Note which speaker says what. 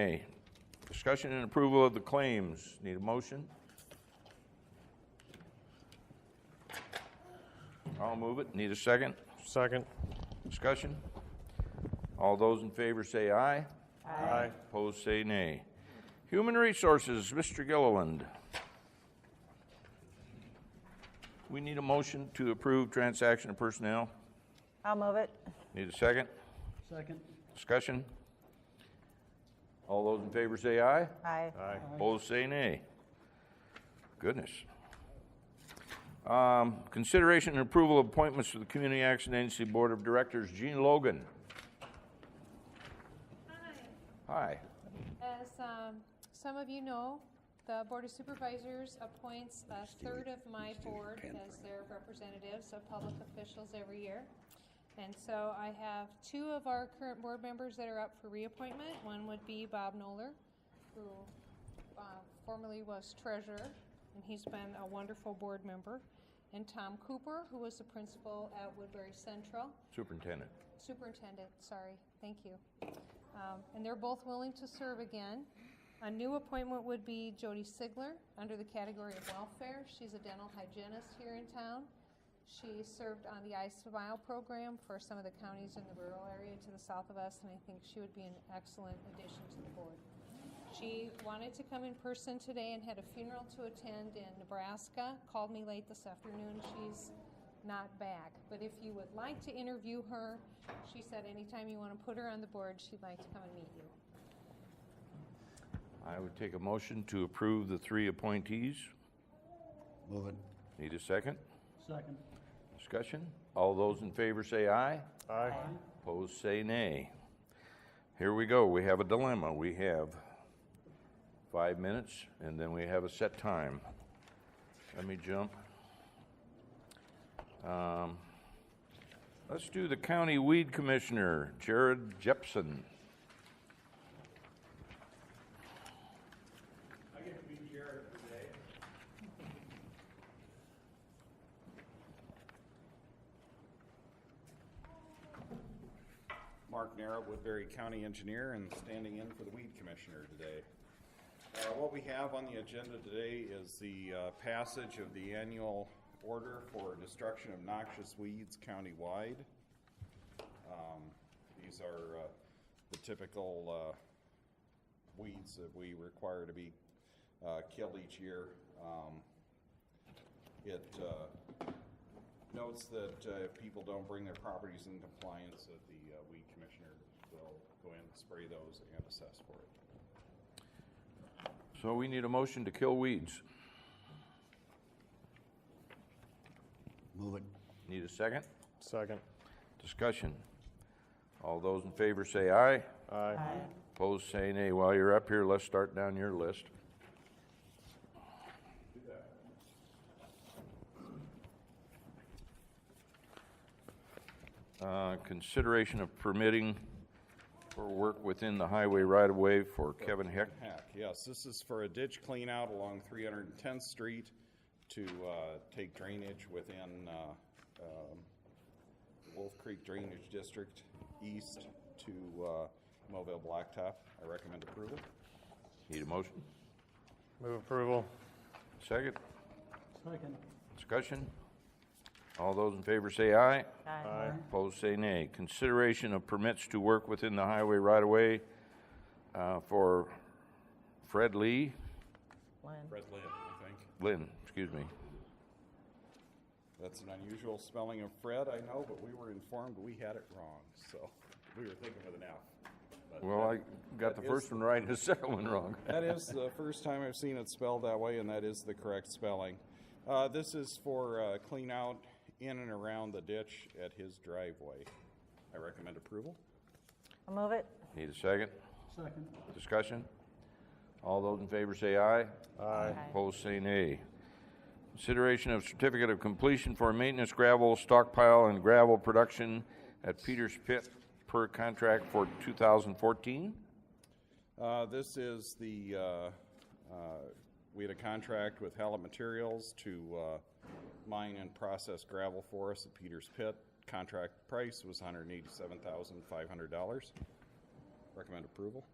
Speaker 1: A, discussion and approval of the claims. Need a motion? I'll move it. Need a second?
Speaker 2: Second.
Speaker 1: Discussion? All those in favor say aye.
Speaker 2: Aye.
Speaker 1: Opposed say nay. Human Resources, Mr. Gilliland. We need a motion to approve transaction of personnel.
Speaker 3: I'll move it.
Speaker 1: Need a second?
Speaker 4: Second.
Speaker 1: Discussion? All those in favor say aye.
Speaker 3: Aye.
Speaker 2: Aye.
Speaker 1: Opposed, say nay. Goodness. Um, Consideration and approval of appointments to the Community Action Agency Board of Directors, Gene Logan. Hi.
Speaker 5: As um, some of you know, the Board of Supervisors appoints a third of my board as their representatives of public officials every year. And so I have two of our current board members that are up for reappointment. One would be Bob Noller, who uh, formerly was treasurer, and he's been a wonderful board member. And Tom Cooper, who was the principal at Woodbury Central
Speaker 1: Superintendent.
Speaker 5: superintendent, sorry, thank you. Um, And they're both willing to serve again. A new appointment would be Jody Sigler, under the category of welfare. She's a dental hygienist here in town. She served on the I Smile program for some of the counties in the rural area to the south of us, and I think she would be an excellent addition to the board. She wanted to come in person today and had a funeral to attend in Nebraska, called me late this afternoon. She's not back, but if you would like to interview her, she said anytime you want to put her on the board, she'd like to come and meet you.
Speaker 1: I would take a motion to approve the three appointees.
Speaker 4: Move it.
Speaker 1: Need a second?
Speaker 4: Second.
Speaker 1: Discussion? All those in favor say aye.
Speaker 2: Aye.
Speaker 1: Opposed, say nay. Here we go. We have a dilemma. We have five minutes, and then we have a set time. Let me jump. Um, Let's do the County Weed Commissioner, Jared Jepson.
Speaker 6: Mark Nara, Woodbury County Engineer, and standing in for the Weed Commissioner today. Uh, What we have on the agenda today is the uh, passage of the annual order for destruction of noxious weeds countywide. Um, These are uh, the typical uh, weeds that we require to be uh, killed each year. Um, It uh, notes that uh, if people don't bring their properties in compliance, that the uh, weed commissioner will go in, spray those, and assess for it.
Speaker 1: So we need a motion to kill weeds.
Speaker 4: Move it.
Speaker 1: Need a second?
Speaker 2: Second.
Speaker 1: Discussion. All those in favor say aye.
Speaker 2: Aye.
Speaker 1: Opposed, say nay. While you're up here, let's start down your list. Uh, Consideration of permitting for work within the highway right-of-way for Kevin Heck.
Speaker 6: Heck, yes, this is for a ditch cleanout along 310th Street to uh, take drainage within uh, um, Wolf Creek Drainage District east to uh, Mobile Blacktop. I recommend approval.
Speaker 1: Need a motion?
Speaker 2: Move approval.
Speaker 1: Second?
Speaker 4: Second.
Speaker 1: Discussion? All those in favor say aye.
Speaker 2: Aye.
Speaker 1: Opposed, say nay. Consideration of permits to work within the highway right-of-way uh, for Fred Lee,
Speaker 3: Lynn.
Speaker 6: Fred Lynn, I think.
Speaker 1: Lynn, excuse me.
Speaker 6: That's an unusual spelling of Fred, I know, but we were informed we had it wrong, so we were thinking with an F. but
Speaker 1: Well, I got the
Speaker 6: that
Speaker 1: first
Speaker 6: is-
Speaker 1: one right and the second one wrong.
Speaker 6: That is the first time I've seen it spelled that way, and that is the correct spelling. Uh, this is for, uh, clean out in and around the ditch at his driveway. I recommend approval.
Speaker 3: I'll move it.
Speaker 1: Need a second?
Speaker 4: Second.
Speaker 1: Discussion? All those in favor say aye.
Speaker 2: Aye.
Speaker 1: Opposed, say nay. Consideration of certificate of completion for maintenance gravel stockpile and gravel production at Peters Pit per contract for 2014.
Speaker 6: Uh, This is the, uh, uh, we had a contract with Hallett Materials to uh, mine and process gravel for us at Peters Pit. Contract price was $187,500. Recommend approval.